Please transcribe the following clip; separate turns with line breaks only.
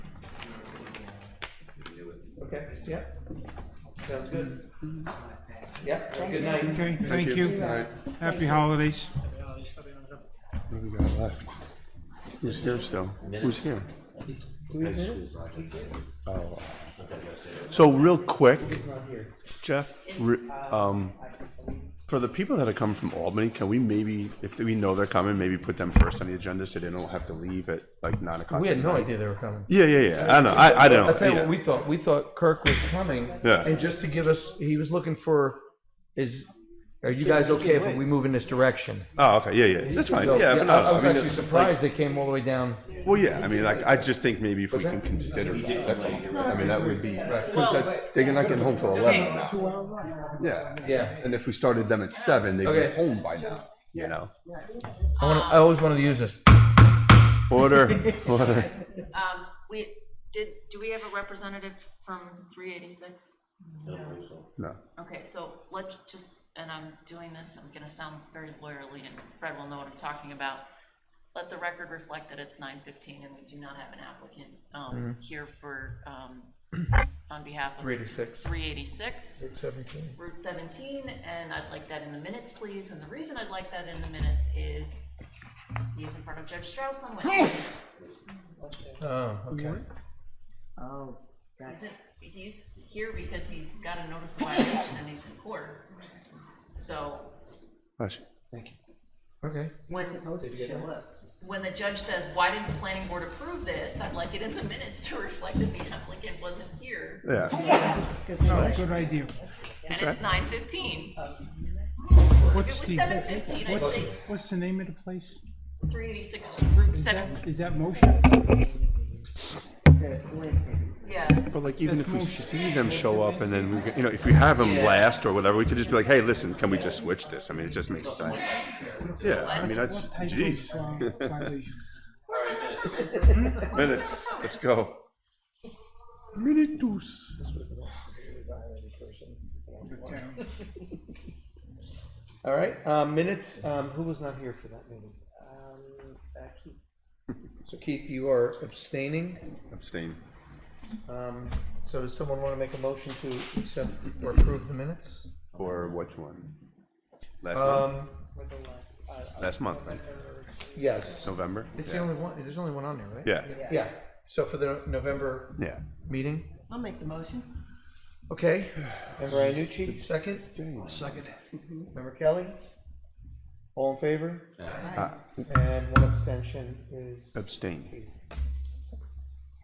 Okay, yep. Sounds good. Yep, have a good night.
Okay, thank you.
All right,
Happy holidays.
what do we got left? Who's here still? Who's here? Oh. So real quick, Jeff, re- um, for the people that are coming from Albany, can we maybe, if we know they're coming, maybe put them first on the agenda so they don't have to leave at like nine o'clock?
We had
at
no
night?
idea they were coming.
Yeah, yeah, yeah. I know. I, I don't.
I tell you
yeah.
what we thought. We thought Kirk was coming.
Yeah.
And just to give us, he was looking for, is, are you guys okay if we move in this direction?
oh, okay. Yeah, yeah. That's fine.
So,
yeah, but no,
I I was
mean,
actually surprised they came all the way down.
Well, yeah, I mean, like, I just think maybe if we can consider that, that's all. I mean, that would be, because that- they're not getting home till eleven now. Yeah.
Yeah.
And if we started them at seven, they'd be
Okay.
home by now, you know?
I wanna, I always wanted to use this.
Order, order.
Um, we, did, do we have a representative from three eighty-six?
No.
Okay, so let's just, and I'm doing this, I'm gonna sound very lawyerly and Fred will know what I'm talking about. Let the record reflect that it's nine fifteen and we do not have an applicant, um, here for, um, on behalf of.
386.
Three eighty-six.
Seventeen.
Route 17, and I'd like that in the minutes, please. And the reason I'd like that in the minutes is he's in front of Judge Strauss on Wednesday.
Oh, okay.
Oh, that's,
He's- He's here because he's got a notice of violation and he's in court. So
Bless you.
Okay.
when,
supposed to show up.
when the judge says, why didn't the planning board approve this? I'd like it in the minutes to reflect that the applicant wasn't here.
Yeah,
Oh, good idea.
And it's 9:15. If
What's
it was
the,
7:15, I'd say
what's the name of the place?
it's 386 Route 7,
Is that motion?
The Wednesday.
yes.
but like, even if we see them show up and then we, can- you know, if we have them last or whatever, we could just be like, hey, listen, can we just switch this? I mean, it just makes sense. Yeah, I mean, that's,
Type of,
geez,
uh, violation.
minutes, let's go. Minutus.
uh,
All right, um, minutes, um, who was not here for that meeting? So Keith, you are abstaining.
Abstain.
Um, so does someone want to make a motion to accept or approve the minutes?
Or which one? Last month?
Um,
Last month, right?
yes.
November?
It's the
yeah.
only one, there's only one on there, right?
Yeah.
Yeah, so for the November
Yeah.
meeting,
I'll make the motion.
okay. Member Ianucci, second. Second. Member Kelly? All in favor? And one abstention is
Abstain.